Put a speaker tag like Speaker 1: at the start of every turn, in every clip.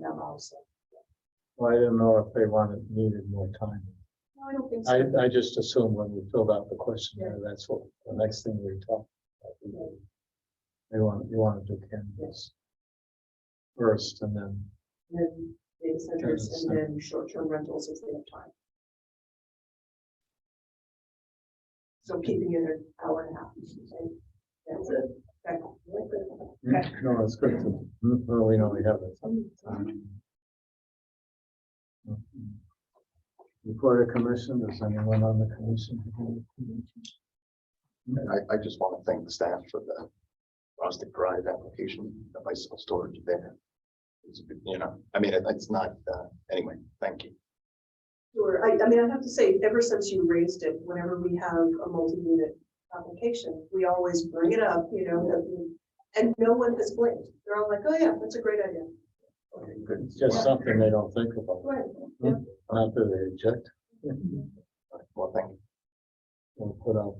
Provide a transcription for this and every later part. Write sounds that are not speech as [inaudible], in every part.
Speaker 1: them also.
Speaker 2: Well, I didn't know if they wanted, needed more time.
Speaker 1: No, I don't think so.
Speaker 2: I, I just assumed when we filled out the questionnaire, that's what, the next thing we talked. about. They want, you want to do canvas first and then, [laughs]
Speaker 1: And then Data centers and
Speaker 2: Data
Speaker 1: then short-term rentals if they have time. So keeping it an hour and a half. okay? That's it. Okay.
Speaker 2: no, it's good to, well, we know we have it. Report a commission, is anyone on the commission?
Speaker 3: And I, I just want to thank the staff for the rustic drive application, the bicycle storage there. It's, you know, I mean, it- it's not, uh, anyway, thank you.
Speaker 1: Sure, I, I mean, I have to say, ever since you raised it, whenever we have a multi-unit application, we always bring it up, you know, that we- and no one has blinked. They're all like, oh yeah, that's a great idea.
Speaker 3: Okay, Good.
Speaker 2: It's just something they don't think about,
Speaker 1: Right.
Speaker 2: not that they object,
Speaker 3: Well, thank you.
Speaker 2: or put out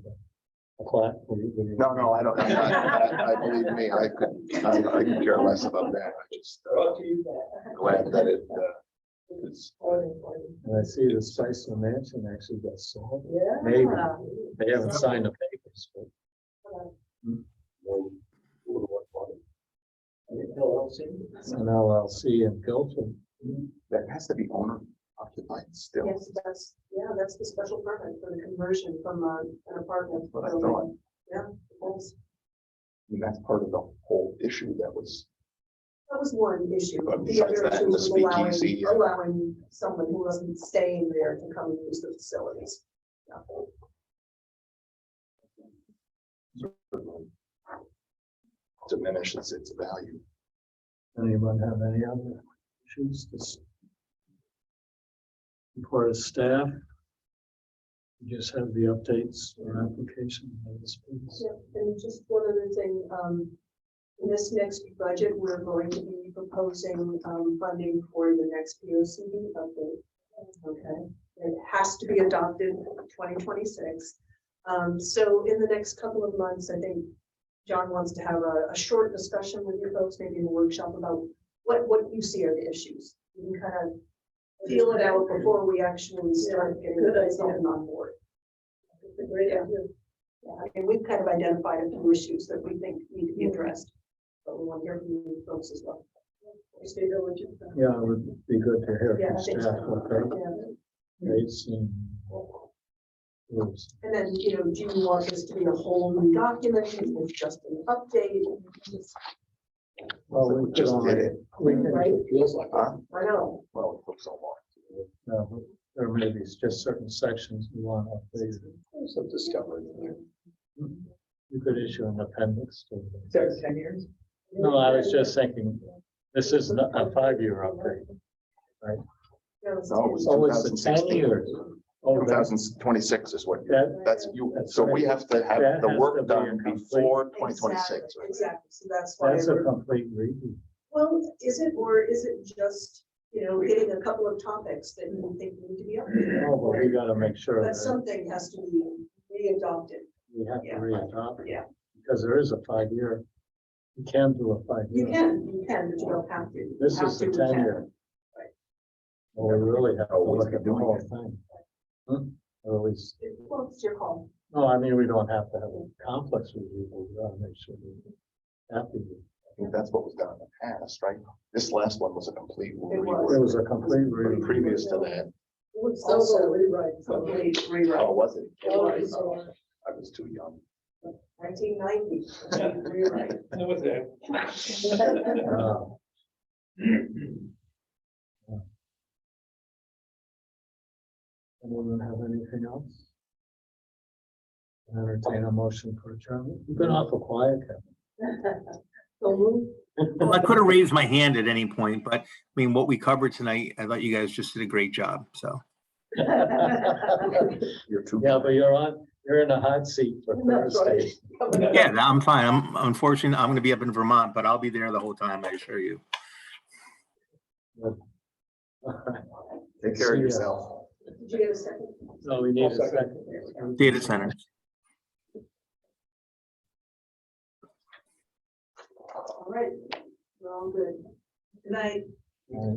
Speaker 2: a plaque. we- we-
Speaker 3: No, no, I don't, [laughs] I'm not- I, I believe me, I could, I I could care less about that. I just, uh,
Speaker 1: Uh-huh.
Speaker 3: glad that it, uh, is,
Speaker 2: And I see the Spicer Mansion actually got sold.
Speaker 1: Yeah. Uh-huh.
Speaker 2: Maybe. They haven't signed the papers, but. It's an LLC in Guilford.
Speaker 3: that has to be owner occupied still.
Speaker 1: Yes, that's, yeah, that's the special permit for the conversion from uh, an apartment.
Speaker 3: What I
Speaker 1: building.
Speaker 3: thought.
Speaker 1: Yeah, that's-
Speaker 3: And that's part of the whole issue that was,
Speaker 1: that was one issue.
Speaker 3: But
Speaker 1: The other
Speaker 3: besides that,
Speaker 1: issue
Speaker 3: the
Speaker 1: was allowing,
Speaker 3: speakeasy and-
Speaker 1: allowing someone who wasn't staying there to come and use the facilities. Yeah.
Speaker 3: uh, diminishes its value.
Speaker 2: Anyone have any other issues? This- Report of staff. You Just have the updates or application. of this piece.
Speaker 1: Yeah, and just one other thing, um, in this next budget, we're going to be proposing, um, funding for the next P O C D update. Okay, it has to be adopted twenty twenty-six. Um, so in the next couple of months, I think John wants to have a, a short discussion with you folks, maybe in a workshop about what, what you see are the issues. You can kind of feel it out before we actually start getting
Speaker 4: good idea.
Speaker 1: something on board.
Speaker 4: It's a great idea.
Speaker 1: Yeah, I mean, we've kind of identified a few issues that we think need to be addressed, but we want to hear from you folks as well.
Speaker 4: Just figure what you-
Speaker 2: Yeah, it would be good to hear
Speaker 1: Yeah,
Speaker 2: from
Speaker 1: I think
Speaker 2: staff what their
Speaker 1: so. Yeah.
Speaker 2: rates and rules.
Speaker 1: And then, you know, do you want this to be a whole new document? Is this just an update? Just-
Speaker 2: Well,
Speaker 3: So we just did it.
Speaker 2: We can,
Speaker 1: Right?
Speaker 3: Feels like, huh?
Speaker 1: I know.
Speaker 3: Well, it took so long.
Speaker 2: no, but there may be just certain sections you want updated.
Speaker 3: There's some discovery in there.
Speaker 2: You could issue an appendix to.
Speaker 4: So ten years?
Speaker 2: No, I was just thinking, this is not a five-year update.
Speaker 1: No, it's-
Speaker 3: No, it was
Speaker 2: Oh, it's a
Speaker 3: 2016.
Speaker 2: 10 years. Oh,
Speaker 3: Two
Speaker 2: that's,
Speaker 3: thousand twenty-six is what, you-
Speaker 2: that,
Speaker 3: that's you,
Speaker 2: That's
Speaker 3: so we have to
Speaker 2: That
Speaker 3: have the
Speaker 2: has to
Speaker 3: work
Speaker 2: be a
Speaker 3: done
Speaker 2: complete-
Speaker 3: before twenty twenty-six.
Speaker 1: Exactly, Exactly, so that's why.
Speaker 2: that's a
Speaker 1: we're-
Speaker 2: complete redo.
Speaker 1: Well, is it, or is it just, you know, getting a couple of topics that you think need to be updated?
Speaker 2: Oh, but we gotta make sure
Speaker 1: But
Speaker 2: that
Speaker 1: something has to be re-adopted.
Speaker 2: we have to
Speaker 1: yeah,
Speaker 2: re-adopt. it,
Speaker 1: yeah.
Speaker 2: Because there is a five-year, you can do a
Speaker 1: You
Speaker 2: five-year.
Speaker 1: can, you can, but you don't have to. You
Speaker 2: This
Speaker 1: have
Speaker 2: is the
Speaker 1: to, you can.
Speaker 2: ten-year. Well, we really have to
Speaker 3: Always
Speaker 2: look at the
Speaker 3: doing
Speaker 2: whole
Speaker 3: it.
Speaker 2: thing. Hmm, Or at least,
Speaker 1: It- Well, it's your call.
Speaker 2: no, I mean, we don't have to have a complex review, but we gotta make sure we're happy. with it.
Speaker 3: I think that's what was done in the past, right? This last one was a complete
Speaker 2: It
Speaker 3: rework.
Speaker 2: was a complete
Speaker 3: But
Speaker 2: redo.
Speaker 3: Previous to that,
Speaker 4: It's
Speaker 1: so well
Speaker 4: rewrite.
Speaker 1: Complete
Speaker 3: oh,
Speaker 1: rewrite,
Speaker 3: was it?
Speaker 1: Oh,
Speaker 3: Right.
Speaker 1: it's all
Speaker 3: I was too young.
Speaker 1: nineteen ninety, rewrite.
Speaker 2: Uh, Anyone have anything else? Entertain a motion for adjournment. You've been awful quiet, Kevin.
Speaker 1: [laughs] So
Speaker 3: [laughs]
Speaker 1: move.
Speaker 5: Well, I could have raised my hand at any point, but I mean, what we covered tonight, I thought you guys just did a great job. So
Speaker 1: [laughs]
Speaker 3: You're too.
Speaker 2: Yeah, but you're on, you're in a hot seat for
Speaker 1: That's right.
Speaker 2: Thursday. [laughs]
Speaker 5: yeah, no, I'm fine. I'm unfortunately, I'm going to be up in Vermont, but I'll be there the whole time. I assure you.
Speaker 3: Take care of
Speaker 2: See ya.
Speaker 3: yourself.
Speaker 1: Did you get a second?
Speaker 2: No, we need a second.
Speaker 5: Data center.
Speaker 1: All right, we're all good. Good night.
Speaker 2: Uh,